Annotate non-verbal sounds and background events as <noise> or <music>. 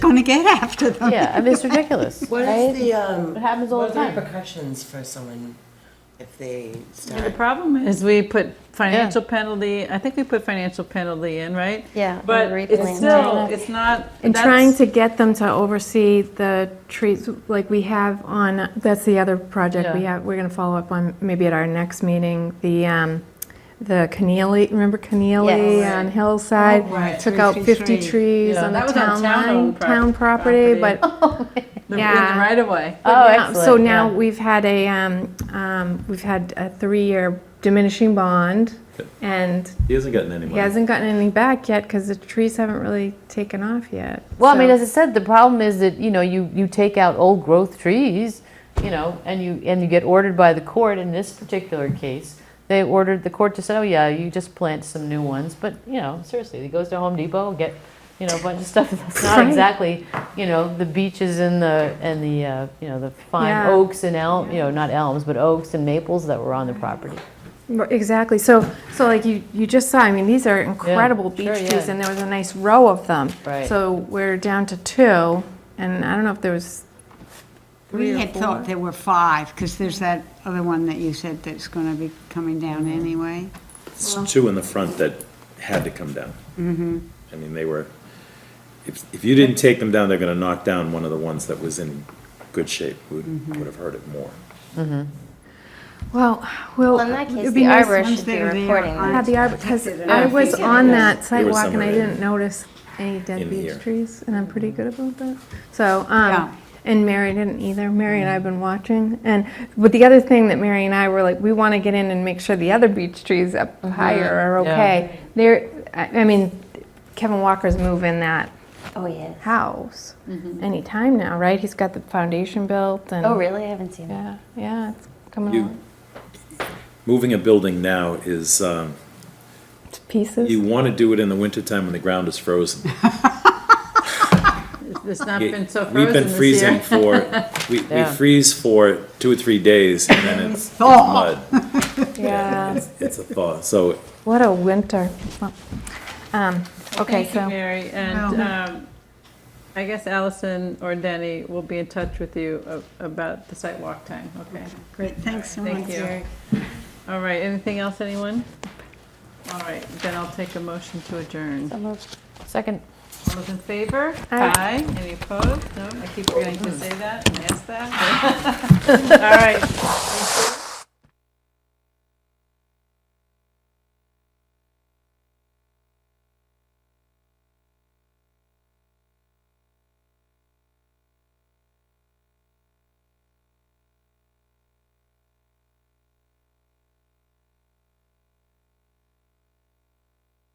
going to get after them. Yeah, I mean, it's ridiculous, What right? is the, um, It happens all what the are time. repercussions for someone if they And the start? problem is we put financial penalty, I think we put financial penalty in, right? Yeah, on But the it's replant. still, it's not. And that's- trying to get them to oversee the trees, like we have on, that's the other project we Yeah. have, we're gonna follow up on, maybe at our next meeting, the, um, the Keneally, remember Keneally Yes. on Hillside? Oh, right, Took out 50 fifty trees. trees Yeah, on the that was on town town line, owned pro- town property, property. but. the- In yeah. the right of way. but Oh, now- So excellent, now yeah. we've had a, um, um, we've had a three-year diminishing bond, Yep. and He hasn't gotten any he money. hasn't gotten any back yet, because the trees haven't really taken off yet. Well, I mean, so- as I said, the problem is that, you know, you, you take out old growth trees, you know, and you, and you get ordered by the court. In this particular case, they ordered, the court to say, oh, yeah, you just plant some new ones. But, you know, seriously, he goes to Home Depot and get, you know, a bunch of stuff <laughs> that's not Right. exactly, you know, the beeches and the, and the, uh, you know, the fine Yeah. oaks and elm, you know, not elms, but oaks and maples that were on the property. Right, Exactly, so, so like you, you just saw, I mean, these are incredible beech sure, trees, yeah. and there was a nice row of them. Right. So we're down to two, and I don't know if there was, We had thought there were five, because there's that other one that you said that's going to be coming down Mm-hmm. anyway. It's two in the front that had to come down. Mm-hmm. I mean, they were, if, if you didn't take them down, they're gonna knock down one of the ones that was in good shape, would, Mm-hmm. would have hurt it more. well, well. Well, in that it'd case, be the nice- arborist once should they be were there reporting on- that. Yeah, the arbor, because I was on that sidewalk and I somewhere in- didn't notice any dead in here. beech trees, and I'm pretty good about that. So, Yeah. um, and Mary didn't either. Mary and I have been watching. And, but the other thing that Mary and I were like, we want to get in and make sure the other beech trees up Mm-hmm. higher are Yeah. okay. They're, I I mean, Kevin Walker's moving that Oh, yeah. house anytime now, right? He's got the foundation built and. Oh, really? I haven't seen that. Yeah, yeah, it's coming You- along Moving a building now is, um, to pieces. you wanna do it in the wintertime when the ground is <laughs> frozen. It's not been so We've frozen been this freezing year. for, <laughs> we, we Yeah. freeze for two or three days and then <laughs> it's it's Thaw. mud. Yeah, It's- It's a thaw, so what a winter. Um, okay, Thank you, so, Mary, and um, I guess Allison or Denny will be in touch with you a- about the site walk time, okay? Great, thanks so much. Thank you. All right, anything else, anyone? All right, then I'll take a motion to adjourn. Second. All those in favor? Aye. Any opposed? No, I keep forgetting to say that and ask that. All right. Thank you.